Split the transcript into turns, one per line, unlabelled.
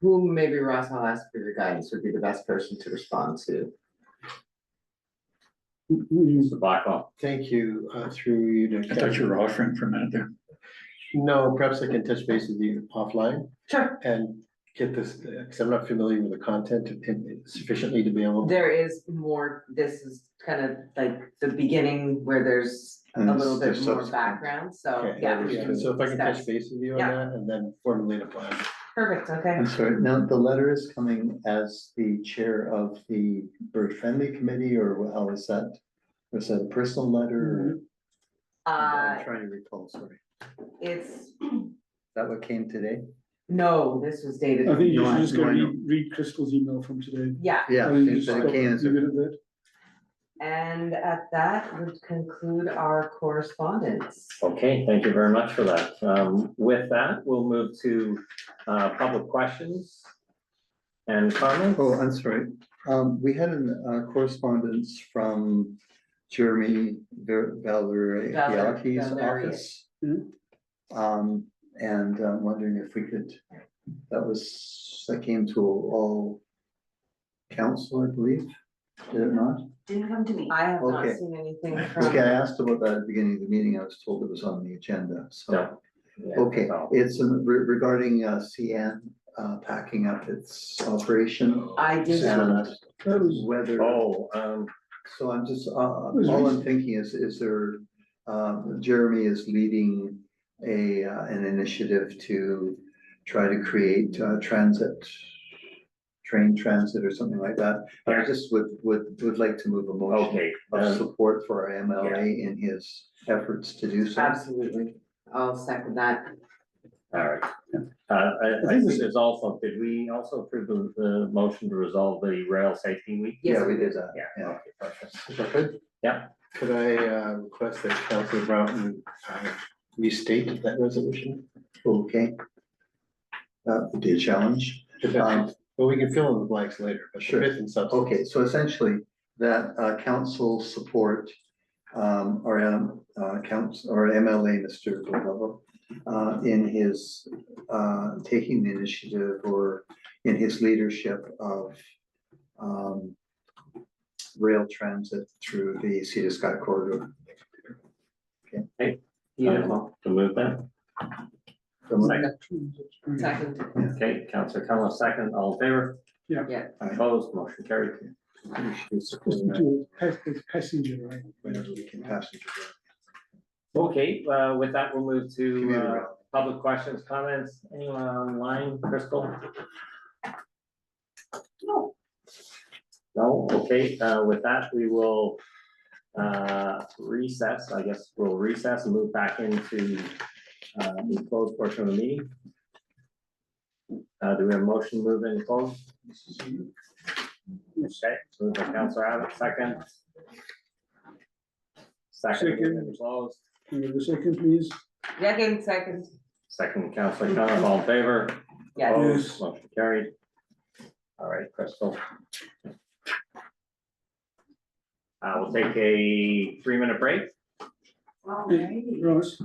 who maybe Ross, I'll ask for your guidance, would be the best person to respond to.
Mr. Blackwell.
Thank you, uh, through you to.
I thought you were offering for a minute there.
No, perhaps I can touch base with you offline
Sure.
and get this, because I'm not familiar with the content sufficiently to be able.
There is more, this is kind of like the beginning where there's a
And
little bit
there's
more
subsequent.
background, so,
Okay,
uh, yeah. we
yeah,
can
So if I can touch
discuss.
base with you on
Yeah.
that and then formulate a plan.
Perfect, okay,
I'm sorry, now the letter is coming as the chair of the bird friendly committee or how is that? Was that a personal letter? or-
Mm-hmm. uh,
I'm Trying to recall, sorry.
it's,
Is That what came today?
no, this was David.
I think you should
want-
just
you
go
wanna
read, read Crystal's email from today.
Yeah,
I
Yeah,
think
Um,
it
just
it
stop-
came as
leave
a
it at that.
and at that would conclude our correspondence.
Okay, thank you very much for that. Um, with that, we'll move to, uh, public questions and comments.
Oh, I'm sorry. Um, we had a correspondence from Jeremy Valerie
Valer-
Yaki's
Valerie.
office.
Mhm.
Um, and I'm wondering if we could, that was, that came to all council, I believe, did it not?
Didn't come to me.
I have not
Okay.
seen anything
Okay, I
from,
asked about that at the beginning of the meeting. I was told it was on the agenda,
Yeah.
so. Okay, it's in re- regarding uh, CN uh, packing up its operation
I did not,
and
That was,
whether.
Oh, um,
So I'm just, uh,
was
all I'm thinking is, is there, um, Jeremy is leading a, uh, an initiative to try to create uh, transit, train transit or something like that. I just would, would, would like to move a motion
okay,
of
um,
support for our MLA in his efforts to do so.
absolutely, I'll second that.
all right. Uh, I, I think there's also, did we also approve the, the motion to resolve the rail safety week?
Yes,
Yeah, we did that.
Yeah,
Yeah.
okay, perfect.
If I could.
Yeah.
Could I uh, request that Council Broughton uh, restate that resolution?
Okay. That would be a challenge.
If
Um,
that- Well, we can fill in the blanks later, but
Sure.
sure, it's in substance.
Okay, so essentially, that uh, council support, um, or, um, uh, council, or MLA, Mr. Glover, uh, in his, uh, taking the initiative or in his leadership of, um, rail transit through the Cedar Sky corridor.
Beautiful, to move that. Second,
Second,
okay, Counselor Cullen, second, all in favor?
yeah,
Opposed, motion carried.
to a pa- a passenger, right?
Whenever we can pass it. to
Okay, uh, with that, we'll move
the
to,
community
uh,
rail.
Public questions, comments, anyone online, Crystal? No. No, okay, uh, with that, we will, uh, recess, I guess we'll recess and move back into, uh, the closed portion of the meeting. Uh, do we have a motion to move in closed? Okay, move by Counselor Abbott, second. Second, move in closed,
Can you have a second, please?
second, second,
second Counselor Connor, all in favor?
yes.
Opposed, motion carried. All right, Crystal. Uh, we'll take a three-minute break.
Alrighty.
Ross?